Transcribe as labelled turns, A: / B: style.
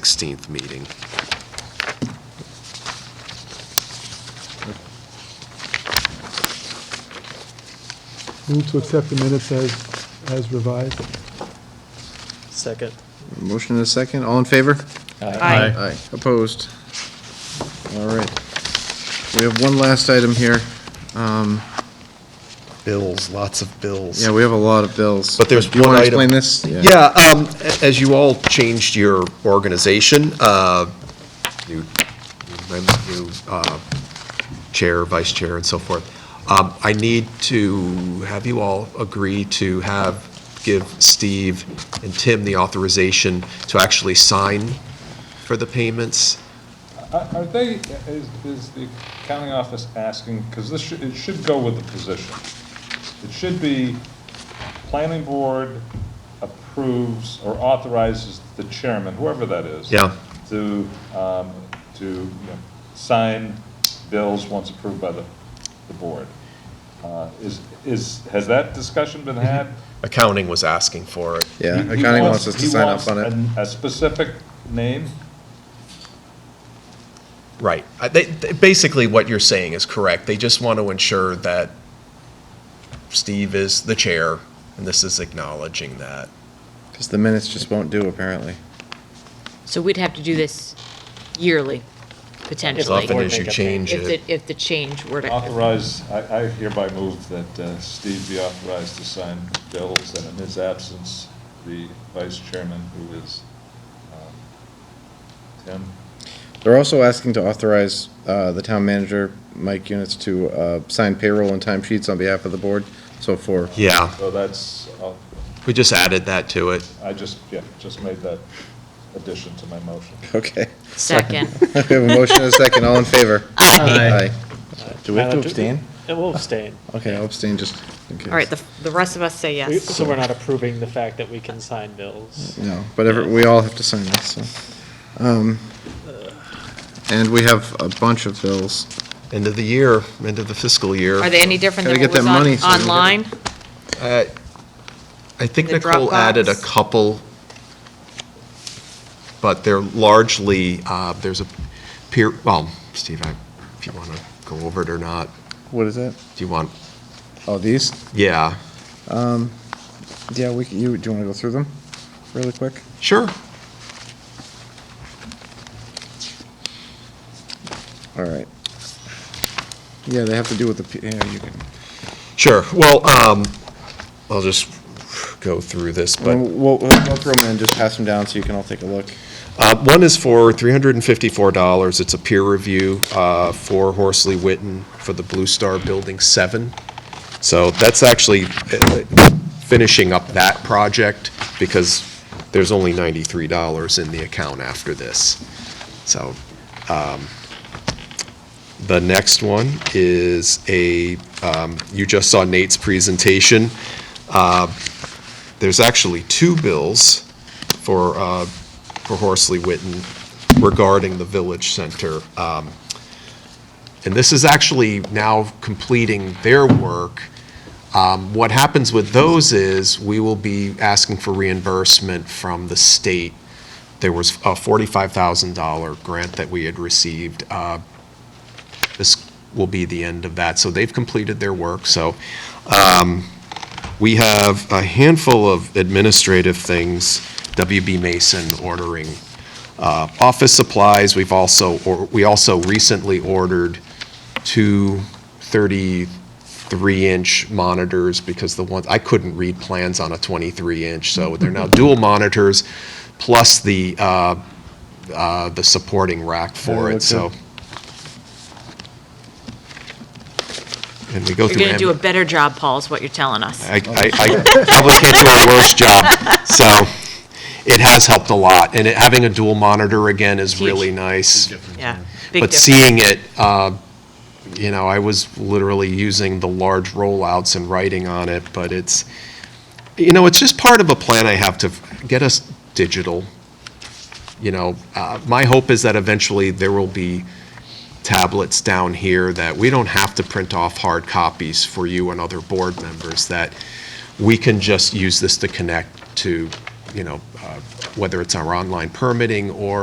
A: 16th meeting.
B: Move to accept the minutes as, as revised.
C: Second.
D: Motion and a second, all in favor?
E: Aye.
D: Aye. Opposed? All right. We have one last item here. Um,
E: Bills, lots of bills.
D: Yeah, we have a lot of bills.
E: But there's
D: Do you wanna
E: one item-
D: Explain this?
E: Yeah, um, a- as you all changed your organization, uh, new, new mem- new, uh, chair, vice chair, and so forth, um, I need to have you all agree to have, give Steve and Tim the authorization to actually sign for the payments.
F: Are are they, is, is the accounting office asking, because this should, it should go with the position. It should be, planning board approves or authorizes the chairman, whoever that is.
E: Yeah.
F: To, um, to you know, sign bills once approved by the, the board. Uh, Is, is, has that discussion been had?
E: Accounting was asking for it.
D: Yeah,
F: He- he
D: accounting wants us to
F: he
D: sign
F: wants
D: up on it.
F: an- A specific name?
G: Right. I- They, they- basically, what you're saying is correct. They just want to ensure that Steve is the chair, and this is acknowledging that.
D: Because the minutes just won't do, apparently.
H: So we'd have to do this yearly,
G: As
H: potentially,
G: often
C: board
G: as you
C: make a
G: change
H: if the,
G: it,
H: if the change were to,
F: Authorize, I I hereby move that uh, Steve be authorized to sign bills, and in his absence, the vice chairman, who is um, Tim,
D: They're also asking to authorize uh, the town manager, Mike Units, to uh, sign payroll and time sheets on behalf of the board, so for,
E: Yeah,
F: so that's, uh,
E: we just added that to it.
F: I just, yeah, just made that addition to my motion.
D: okay.
H: second.
D: We have a motion and a second, all in favor? Aye. Uh, Do we have
C: Now, Uh,
D: to
C: do-
D: abstain?
C: It will abstain.
D: Okay, I'll abstain just in case.
H: All right, the, the rest of us say
C: We-
H: yes.
C: So we're not approving the fact that we can sign bills.
D: No, but every- we all have to sign this, so. Um, And we have a bunch of bills.
E: End of the year, end of the fiscal year.
H: Are they any different than
D: Gotta
H: what
D: get that money
H: was
D: so
H: on,
D: we can-
H: online?
E: Uh, I think
H: The
E: Nicole added a
H: Dropbox?
E: couple, but they're largely, uh, there's a peer, well, Steve, I- if you want to go over it or not,
D: What is it?
E: do you want,
D: Oh, these?
E: yeah,
D: Yeah, we, can- you, do you want to go through them really quick?
E: sure.
D: All right. Yeah, they have to do with the, P- yeah, you can,
E: Sure. Well, um, I'll just go through this, but.
D: we'll, we'll go through them and just pass them down so you can all take a look.
E: Uh, One is for $354. It's a peer review uh, for Horsley Witten for the Blue Star Building 7. So that's actually uh, finishing up that project because there's only $93 in the account after this. So um, the next one is a, um, you just saw Nate's presentation. Uh, There's actually two bills for uh, for Horsley Witten regarding the Village Center. Um, And this is actually now completing their work. Um, What happens with those is, we will be asking for reimbursement from the state. There was a $45,000 grant that we had received. Uh, This will be the end of that. So they've completed their work, so um, we have a handful of administrative things, WB Mason ordering uh, office supplies. We've also, or- we also recently ordered two 33-inch monitors because the ones, I couldn't read plans on a 23-inch, so they're now dual monitors, plus the, uh, uh, the supporting rack for
D: Yeah,
E: it, so.
D: okay.
E: And we go
H: You're
E: through.
H: gonna do
E: am-
H: a better job, Paul, is what you're telling us.
E: I, I I probably can't do a worse job. So it has helped a lot. And it, having a dual monitor again is
H: Huge.
E: really nice.
H: Yeah. Big
E: But
H: difference.
E: seeing it, uh, you know, I was literally using the large rollouts and writing on it, but it's, you know, it's just part of a plan I have to f- get us digital. You know, uh, my hope is that eventually there will be tablets down here that we don't have to print off hard copies for you and other board members, that we can just use this to connect to, you know, uh, whether it's our online permitting or